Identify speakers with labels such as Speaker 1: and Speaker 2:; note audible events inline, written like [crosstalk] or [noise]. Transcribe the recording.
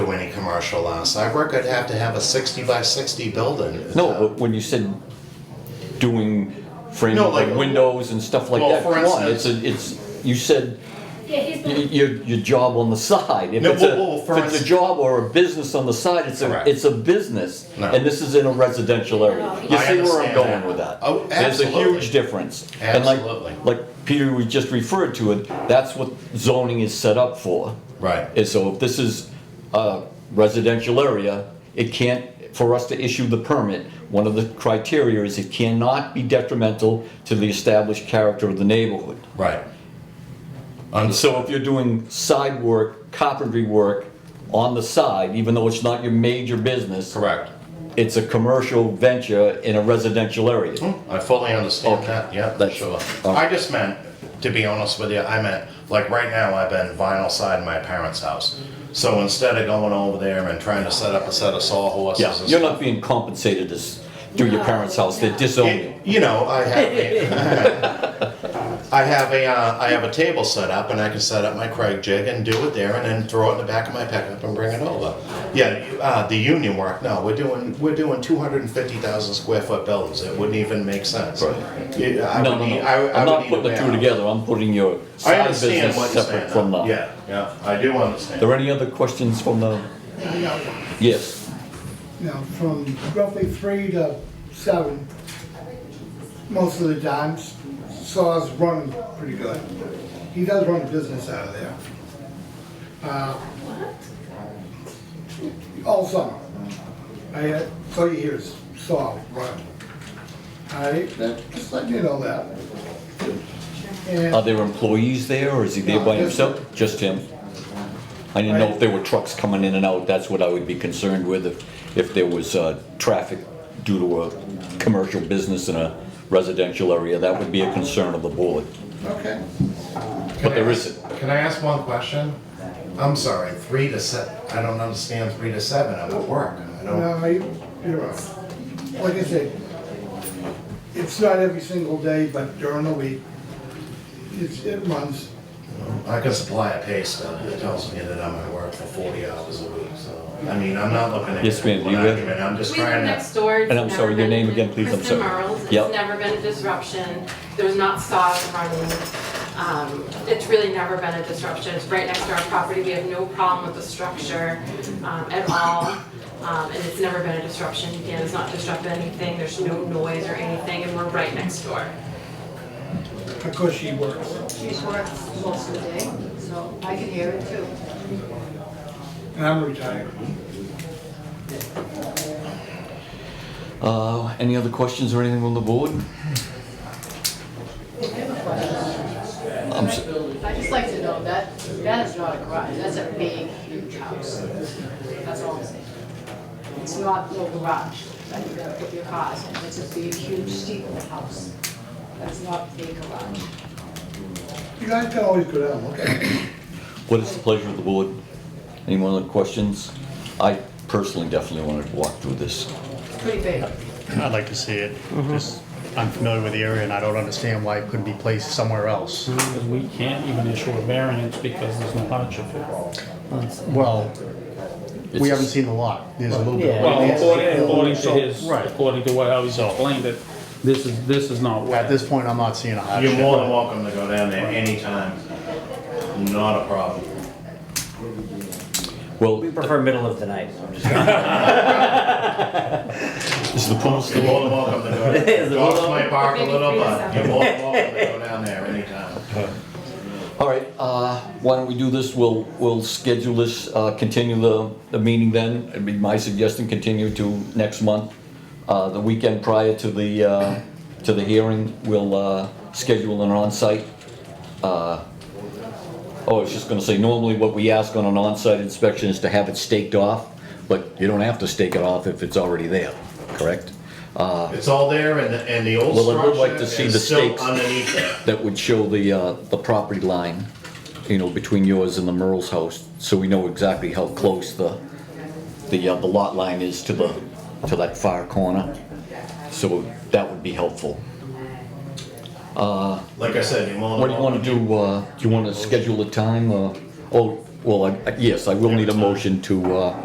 Speaker 1: commercial on a sidewalk, I'd have to have a sixty by sixty building.
Speaker 2: No, but when you said doing framing,
Speaker 1: No,
Speaker 2: like
Speaker 1: like-
Speaker 2: windows and stuff like
Speaker 1: Well,
Speaker 2: that,
Speaker 1: for
Speaker 2: come on, it's,
Speaker 1: instance-
Speaker 2: a- it's, you said
Speaker 3: Yeah, he's
Speaker 2: y-
Speaker 3: the.
Speaker 2: y- your, your job on the side. If
Speaker 1: No,
Speaker 2: it's a-
Speaker 1: well, well, for
Speaker 2: If it's a
Speaker 1: instance-
Speaker 2: job or a business on the side, it's a,
Speaker 1: Correct.
Speaker 2: it's a business.
Speaker 1: No.
Speaker 2: And this is in a residential area.
Speaker 3: No,
Speaker 2: You
Speaker 1: I
Speaker 2: see where I'm
Speaker 1: understand
Speaker 2: going
Speaker 1: that.
Speaker 2: with that?
Speaker 1: Oh,
Speaker 2: There's a
Speaker 1: absolutely.
Speaker 2: huge difference. And like-
Speaker 1: Absolutely.
Speaker 2: Like Peter, we just referred to it, that's what zoning is set up for.
Speaker 1: Right.
Speaker 2: And so if this is a residential area, it can't, for us to issue the permit, one of the criteria is it cannot be detrimental to the established character of the neighborhood.
Speaker 1: Right. Um, so,
Speaker 2: So if you're doing side work, carpentry work on the side, even though it's not your major business,
Speaker 1: correct.
Speaker 2: it's a commercial venture in a residential area.
Speaker 1: I fully understand
Speaker 2: Okay.
Speaker 1: that, yeah,
Speaker 2: That's-
Speaker 1: sure.
Speaker 2: all
Speaker 1: I
Speaker 2: right.
Speaker 1: just meant, to be honest with you, I meant, like, right now, I've been vinyl siding my parents' house. So instead of going over there and trying to set up a set of sawhorses and
Speaker 2: Yeah,
Speaker 1: stuff.
Speaker 2: you're not being compensated as through your parents' house, they disown you.
Speaker 1: It- You know, I have a,
Speaker 2: [laughs]
Speaker 1: I have a, uh, I have a table set up and I can set up my Craig jig and do it there and then throw it in the back of my pickup and bring it over. Yeah, uh, the union work, no, we're doing, we're doing two hundred and fifty thousand square foot buildings. It wouldn't even make sense.
Speaker 2: Right.
Speaker 1: Yeah, I
Speaker 2: No,
Speaker 1: would
Speaker 2: no,
Speaker 1: need-
Speaker 2: no,
Speaker 1: I- I
Speaker 2: I'm
Speaker 1: would
Speaker 2: not
Speaker 1: need
Speaker 2: putting the
Speaker 1: a
Speaker 2: two
Speaker 1: van.
Speaker 2: together, I'm putting your
Speaker 1: I
Speaker 2: side
Speaker 1: understand
Speaker 2: business
Speaker 1: what you're
Speaker 2: separate
Speaker 1: saying.
Speaker 2: from
Speaker 1: though.
Speaker 2: the.
Speaker 1: Yeah, yeah, I do understand.
Speaker 2: There any other questions from the, yes,
Speaker 4: Now, from roughly three to seven, most of the times, Saw's running pretty good. He does run a business out of there. Uh, All summer. I, uh, all you hear is Saw running. All right, that- just let you know that. And-
Speaker 2: are there employees there or is he there by
Speaker 4: No, just-
Speaker 2: himself? Just him? I didn't know if there were trucks coming in and out, that's what I would be concerned with, if, if there was, uh, traffic due to a commercial business in a residential area, that would be a concern of the board,
Speaker 4: Okay.
Speaker 2: but there isn't.
Speaker 1: Can I ask one question? I'm sorry, three to seven, I don't understand three to seven, I'm at work, I don't.
Speaker 4: No, Uh, you- you're right. Like I said, it's not every single day, but during the week, it's, it runs.
Speaker 1: I can supply a pay stub that tells me that I'm at work for forty hours a week, so, I mean, I'm not looking at.
Speaker 2: Yes, ma'am,
Speaker 1: one
Speaker 2: you will.
Speaker 1: argument, I'm just
Speaker 5: We live
Speaker 1: trying
Speaker 5: next
Speaker 1: to.
Speaker 5: door. It's
Speaker 2: And I'm
Speaker 5: never
Speaker 2: sorry, your
Speaker 5: been
Speaker 2: name
Speaker 5: a-
Speaker 2: again, please, I'm
Speaker 5: Kristen
Speaker 2: sorry.
Speaker 5: Merles. It's
Speaker 2: Yep.
Speaker 5: never been a disruption. There's not saws running. Um, It's really never been a disruption. It's right next to our property. We have no problem with the structure um, at all. Um, And it's never been a disruption. Again, it's not disrupting anything. There's no noise or anything, and we're right next door.
Speaker 4: Of course, she works.
Speaker 6: She works most of the day, so I can hear it too.
Speaker 4: And I'm retired.
Speaker 2: Uh, any other questions or anything from the board?
Speaker 6: I have a question.
Speaker 2: I'm so-
Speaker 6: I'd just like to know that, that is not a garage, that's a big, huge house. That's all I'm saying. It's not no garage, that you gotta put your cars in, it's a big, huge, steep house. That's not a garage.
Speaker 4: You guys can always go down, okay?
Speaker 2: What is the pleasure of the board? Any more other questions? I personally definitely wanted to walk through this.
Speaker 6: Pretty big.
Speaker 7: I'd like to see it. Just, I'm familiar with the area and I don't understand why it couldn't be placed somewhere else.
Speaker 8: Because we can't even issue a variance because there's no hardship involved.
Speaker 7: Well,
Speaker 2: It's-
Speaker 7: we haven't seen the lot. There's a little bit. of-
Speaker 8: Well, according, according to his,
Speaker 7: Right.
Speaker 8: according to what how he explained it, this is, this is not
Speaker 7: At
Speaker 8: wet.
Speaker 7: this point, I'm not seeing a
Speaker 1: You're
Speaker 7: hardship.
Speaker 1: more than welcome to go down there anytime, not a problem.
Speaker 2: Well,
Speaker 9: We prefer middle of the night. I'm just
Speaker 2: [laughs] is the pool
Speaker 1: You're
Speaker 2: still
Speaker 1: more
Speaker 2: on?
Speaker 1: than welcome to
Speaker 2: [laughs]
Speaker 1: go, down. dogs might bark a little, but you're more than welcome to go down there anytime.
Speaker 2: All right, uh, why don't we do this? We'll, we'll schedule this, uh, continue the, the meeting then. It'd be my suggestion, continue to next month. Uh, the weekend prior to the, uh, to the hearing, we'll, uh, schedule an on-site. uh, Oh, I was just gonna say, normally what we ask on an on-site inspection is to have it staked off, but you don't have to stake it off if it's already there, correct?
Speaker 1: It's all there and, the- and the old
Speaker 2: Well, I would like to
Speaker 1: structure
Speaker 2: see the
Speaker 1: is still
Speaker 2: stakes.
Speaker 1: underneath it.
Speaker 2: that would show the, uh, the property line, you know, between yours and the Merle's house, so we know exactly how close the, the, uh, the lot line is to the, to that far corner. So that would be helpful.
Speaker 1: Like I said, you're more than
Speaker 2: What do you
Speaker 1: welcome.
Speaker 2: wanna do, uh, do you wanna schedule a time, uh, oh, well, I, yes, I will need a motion to, uh,